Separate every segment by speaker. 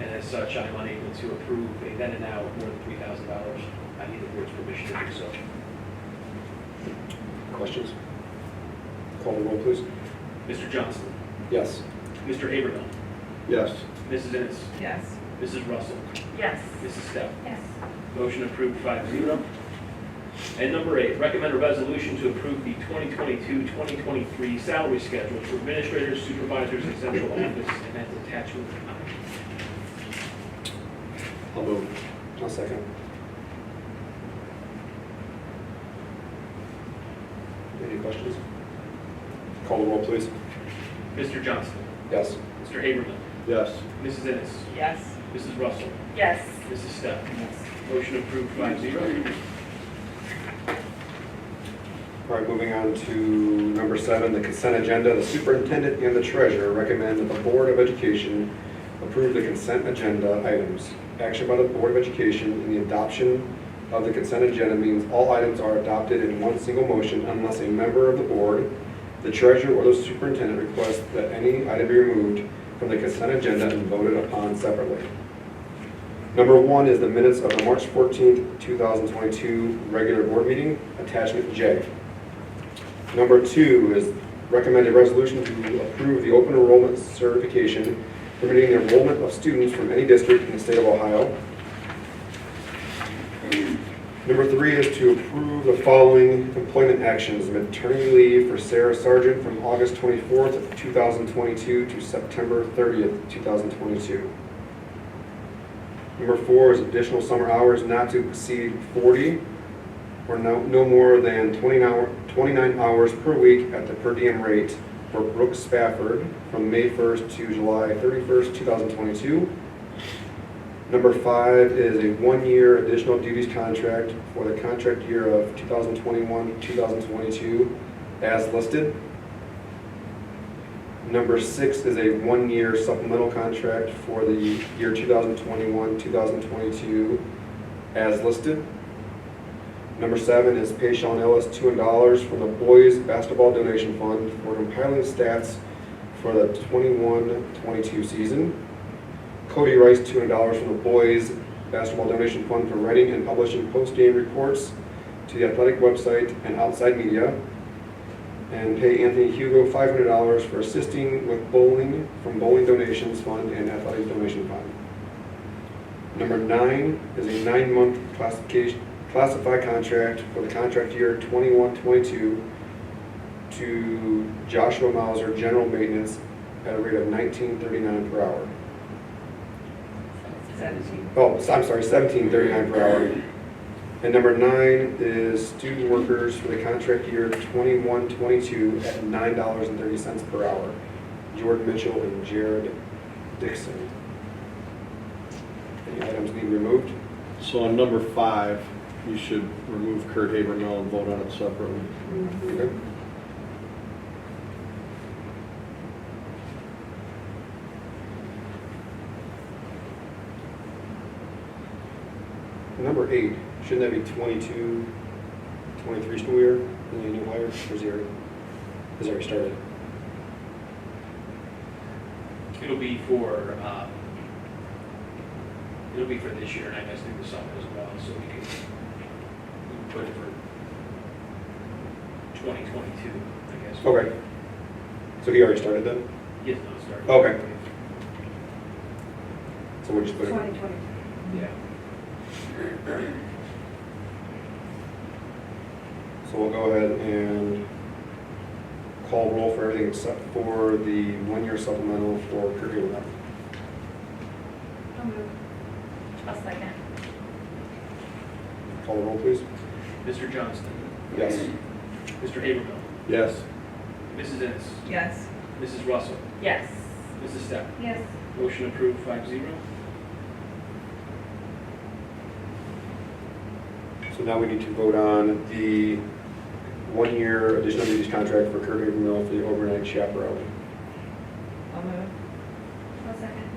Speaker 1: As such, I am unable to approve a then and now of more than three thousand dollars. I need the board's permission to do so.
Speaker 2: Questions? Call the roll, please.
Speaker 1: Mr. Johnson,
Speaker 2: Yes.
Speaker 1: Mr. Habermill,
Speaker 2: Yes.
Speaker 1: Mrs. Ennis,
Speaker 3: Yes.
Speaker 1: Mrs. Russell,
Speaker 4: Yes.
Speaker 1: Mrs. Steph.
Speaker 4: Yes.
Speaker 1: Motion approved five zero. And number eight, recommend a resolution to approve the 2022-2023 salary schedule for administrators, supervisors, and central office, and that's attachment I.
Speaker 2: I'll move. I'll second. Any questions? Call the roll, please.
Speaker 1: Mr. Johnston,
Speaker 2: Yes.
Speaker 1: Mr. Haberman,
Speaker 2: Yes.
Speaker 1: Mrs. Ennis,
Speaker 3: Yes.
Speaker 1: Mrs. Russell,
Speaker 4: Yes.
Speaker 1: Mrs. Steph. Motion approved five zero.
Speaker 2: All right, moving on to number seven, the consent agenda. The superintendent and the treasurer recommend that the Board of Education approve the consent agenda items. Action by the Board of Education in the adoption of the consent agenda means all items are adopted in one single motion unless a member of the board, the treasurer, or the superintendent requests that any item be removed from the consent agenda and voted upon separately. Number one is the minutes of the March 14th, 2022 regular board meeting, attachment J. Number two is recommended resolution to approve the open enrollment certification permitting the enrollment of students from any district in the state of Ohio. Number three is to approve the following employment actions, maternity leave for Sarah Sargent from August 24th, of 2022 to September 30th, 2022. Number four is additional summer hours not to exceed 40 or no, no more than 29 hour- 29 hours per week at the per diem rate for Brooke Spafford from May 1st to July 31st, 2022. Number five is a one-year additional duties contract for the contract year of 2021, 2022 as listed. Number six is a one-year supplemental contract for the year 2021, 2022 as listed. Number seven is pay Sean Ellis two hundred dollars from the Boys Basketball Donation Fund for compiling stats for the 21-22 season. Cody Rice two hundred dollars from the Boys Basketball Donation Fund for writing and publishing post-game reports to the athletic website and outside media. And pay Anthony Hugo five hundred dollars for assisting with bowling from Bowling Donations Fund and Athletic Donation Fund. Number nine is a nine-month classification, classified contract for the contract year 21-22 to Joshua Mauser General Maintenance at a rate of nineteen thirty-nine per hour.
Speaker 3: Seventeen.
Speaker 2: Oh, s- I'm sorry, seventeen thirty-nine per hour. And number nine is student workers for the contract year 21-22 at nine dollars and thirty cents per hour. Jordan Mitchell and Jared Dixon. Any items need removed?
Speaker 5: So on number five, you should remove Kurt Habermill and vote on it separately.
Speaker 2: Okay. Number eight, shouldn't that be 22, 23 school year, and then new hire, or is he already, has already started?
Speaker 1: It'll be for, um, it'll be for this year, and I guess through the summer as well, so we can we can put it for 2022, I guess.
Speaker 2: Okay. So he already started then?
Speaker 1: Yes, no, sorry.
Speaker 2: Okay. So we'll just put it,
Speaker 3: Twenty twenty.
Speaker 1: Yeah.
Speaker 2: so we'll go ahead and call roll for everything except for the one-year supplemental for curriculum.
Speaker 4: I'll move. I'll second.
Speaker 2: Call the roll, please.
Speaker 1: Mr. Johnston,
Speaker 2: Yes.
Speaker 1: Mr. Habermill,
Speaker 5: Yes.
Speaker 1: Mrs. Ennis,
Speaker 3: Yes.
Speaker 1: Mrs. Russell,
Speaker 4: Yes.
Speaker 1: Mrs. Steph.
Speaker 4: Yes.
Speaker 1: Motion approved five zero.
Speaker 2: So now we need to vote on the one-year additional duties contract for Kurt Habermill for the overnight chaperone.
Speaker 3: I'll move.
Speaker 4: I'll second.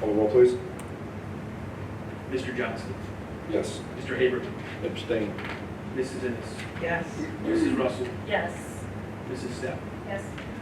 Speaker 2: Call the roll, please.
Speaker 1: Mr. Johnston,
Speaker 2: Yes.
Speaker 1: Mr. Habermill,
Speaker 5: Abstain.
Speaker 1: Mrs. Ennis,
Speaker 3: Yes.
Speaker 1: Mrs. Russell,
Speaker 4: Yes.
Speaker 1: Mrs. Steph.
Speaker 4: Yes.